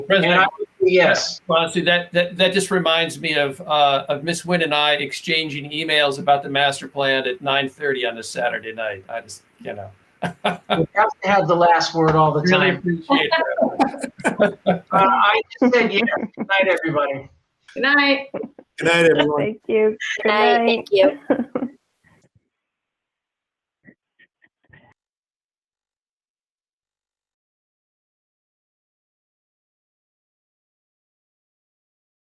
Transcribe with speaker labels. Speaker 1: And I
Speaker 2: President,
Speaker 1: would say yes.
Speaker 2: honestly, that, that, that just reminds me of, uh, of Miss Wynn and I exchanging emails about the master plan at nine thirty on a Saturday night. I just, you know.
Speaker 1: You have to have the last word all the
Speaker 2: Really
Speaker 1: time.
Speaker 2: appreciate that.
Speaker 1: Uh, I just said yes. Good night, everybody.
Speaker 3: Good night.
Speaker 4: Good night, everyone.
Speaker 5: Thank you. Good
Speaker 6: Night,
Speaker 5: night.
Speaker 6: thank you.